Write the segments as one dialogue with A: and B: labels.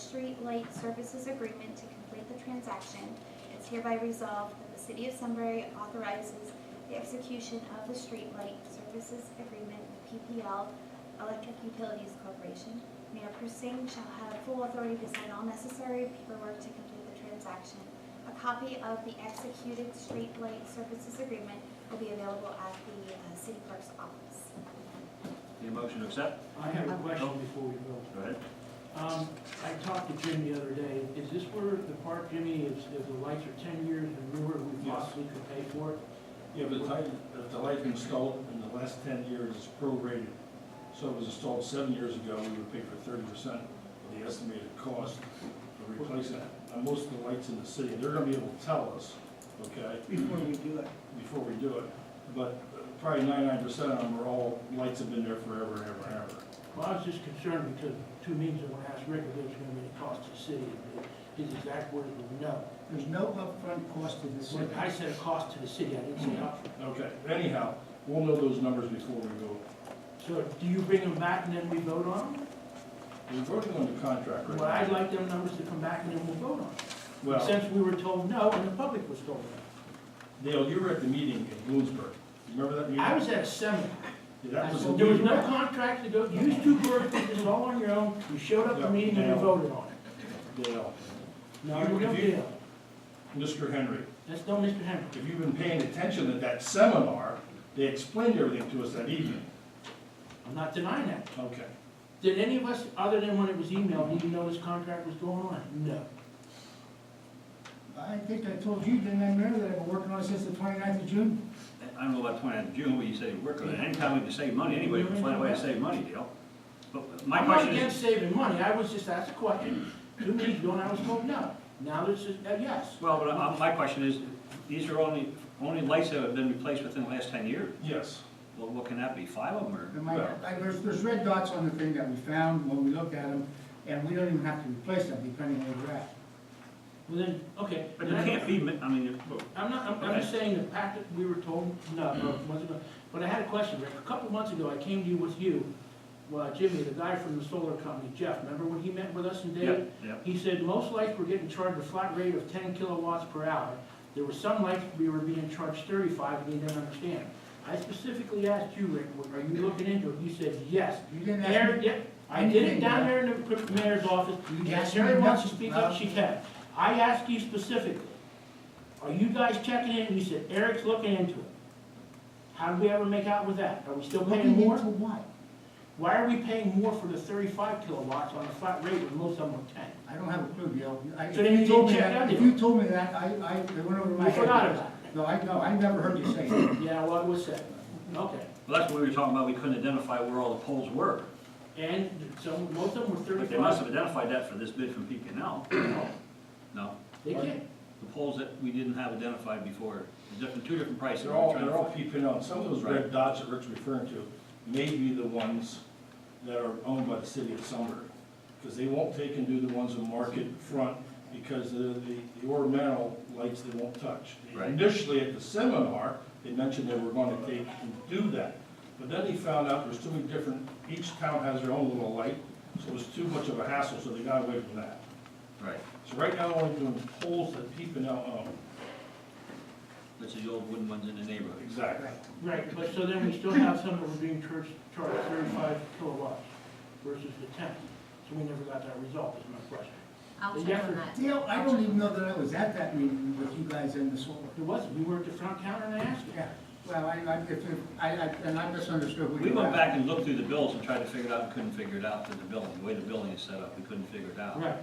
A: Street Light Services Agreement to complete the transaction. It's hereby resolved that the City of Sunbury authorizes the execution of the Street Light Services Agreement with PPL Electric Utilities Corporation. Mayor Persing shall have full authority to sign all necessary paperwork to complete the transaction. A copy of the executed Street Light Services Agreement will be available at the uh, City Clerk's office.
B: Need a motion to accept?
C: I have a question before we go.
B: Go ahead.
C: Um, I talked to Jim the other day, is this where the park, Jimmy, is, if the lights are ten years and newer, we
D: Yes.
C: possibly could pay for it?
D: If the light, if the light installed in the last ten years is prorated, so it was installed seven years ago, we would pay for thirty percent of the estimated cost to replace that. And most of the lights in the city, they're gonna be able to tell us, okay,
E: before we do it.
D: before we do it. But probably ninety-nine percent of them are all, lights have been there forever and ever and ever.
C: Well, I was just concerned because two meetings ago, I asked Rick if there was gonna be a cost to the city, and his exact words were no.
E: There's no upfront cost to the city.
C: When I said a cost to the city, I didn't say upfront.
D: Okay, anyhow, we'll know those numbers before we go.
C: So do you bring them back and then we vote on them?
D: We're voting on the contract right now.
C: Well, I'd like them numbers to come back and then we'll vote on them.
D: Well-
C: Since we were told no and the public was told no.
D: Neil, you were at the meeting in Bloomsburg. You Remember that meeting?
C: I was at a seminar.
D: Yeah, That was.
C: There was no contract to go, you two were, did this all on your own, you showed up to the meeting and you voted on it.
D: Dale,
C: No, no deal.
D: Mr. Henry,
C: That's no Mr. Henry.
D: if you've been paying attention at that seminar, they explained everything to us that evening.
C: I'm not denying that.
D: Okay.
C: Did any of us, other than when it was emailed, even know this contract was going on? No.
E: I think I told you, didn't I, Mayor, that I've been working on it since the 29th of June?
B: I don't know about twenty-nine June, what you say, we're good. Anytime we can save money, anybody can find a way to save money, Dale. But my
C: I'm not
B: question is,
C: against saving money, I was just asked a question, two meetings ago, and I was told no. Now this is a yes.
B: well, but uh, my question is, these are only, only lights that have been replaced within the last ten years.
D: Yes.
B: Well, what can that be, five of them or?
E: And my, I, there's, there's red dots on the thing that we found when we looked at them, and we don't even have to replace them depending on where we're at.
C: Well then, okay.
B: But it can't be, mi- I mean,
C: I'm not, I'm, I'm just saying the fact that we were told, no, no, months ago, but I had a question, Rick. A couple months ago, I came to you with you, well, Jimmy, the guy from the solar company, Jeff, remember when he met with us and
B: yeah,
C: Dave?
B: yeah.
C: He said most lights were getting charged a flat rate of ten kilowatts per hour. There were some lights we were being charged thirty-five, and he didn't understand. I specifically asked you, Rick, are you looking into it? You said, yes.
E: You didn't ask
C: Mayor,
E: me.
C: yeah, I did it down there in the mayor's office,
E: You
C: if
E: asked me
C: Sherry wants to
E: nothing,
C: speak up,
E: Rob.
C: she can. I asked you specifically, are you guys checking in? You said Eric's looking into it. How did we ever make out with that? Are we still
E: Looking
C: paying
E: into
C: more?
E: what?
C: Why are we paying more for the thirty-five kilowatts on a flat rate when most of them are ten?
E: I don't have a clue, Dale. I-
C: So then
E: if
C: you
E: told me
C: didn't check
E: that-
C: out
E: If
C: the-
E: you told me that, I, I, it went over my
C: You
E: head.
C: forgot about
E: No, I, no, I never heard you say that.
C: Yeah, well, it was said. Okay.
B: Well, that's what we were talking about, we couldn't identify where all the poles were.
C: And so most of them were
B: But they must
C: thirty-five.
B: have identified that for this bid from PPL. No,
C: They can't.
B: the poles that we didn't have identified before, different, two different prices.
D: They're all,
B: We're trying
D: they're
B: to
D: all peeping out. Some of those red
B: Right.
D: dots that Rick's referring to may be the ones that are owned by the city of Sunbury. Because they won't take and do the ones on Market Front because the, the the ornamental lights they won't touch.
B: Right.
D: Initially at the seminar, they mentioned they were going to take and do that. But then they found out there's too many different, each town has their own little light, so it was too much of a hassle, so they got away from that.
B: Right,
D: So right now, we're doing poles that peeping out um, own.
B: that's the old wooden ones in the neighborhood.
D: Exactly.
C: Right, but so then we still have some that were being charged, charged thirty-five kilowatts versus the ten. So we never got that result, is my question.
F: I'll
C: Yeah.
F: check on that.
E: Dale, I don't even know that I was at that meeting with you guys in the solar.
C: It wasn't, you were at the front counter and I asked you.
E: Yeah, well, I, I, if, if- I, I, and I misunderstood what
B: We
E: you were
B: went
E: asking.
B: back and looked through the bills and tried to figure it out, and couldn't figure it out through the building, the way the building is set up, we couldn't figure it out.
C: Right,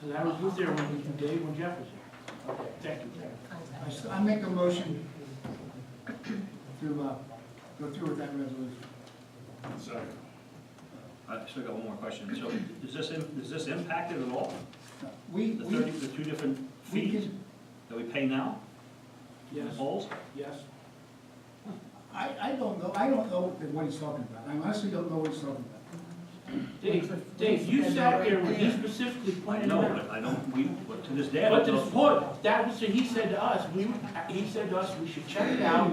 C: because I was with there when, we- Dave, when Jeff was here. Okay, thank you.
E: I s- I make a motion to, uh, go through with that resolution.
D: Exactly.
B: I still got one more question, so is this, im- is this impacted at all?
E: We,
B: The thirty,
E: we,
B: the two different
E: we
B: fees
E: can,
B: that we pay now? for the
C: Yes,
B: Poles?
C: yes.
E: I, I don't know, I don't know that what he's talking about, I honestly don't know what he's talking about.
C: Dave, Dave, you sat there when he specifically
B: I
C: pointed it
B: know,
C: out.
B: but I don't, we, but to this day, I
C: But
B: don't
C: this
B: know.
C: point, that was, he said to us, we, he said to us, we should check it out.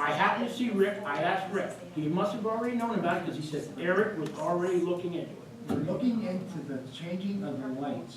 C: I happened to see Rick, I asked Rick, he must have already known about it, because he said Eric was already looking into it.
E: We're looking into the changing of the lights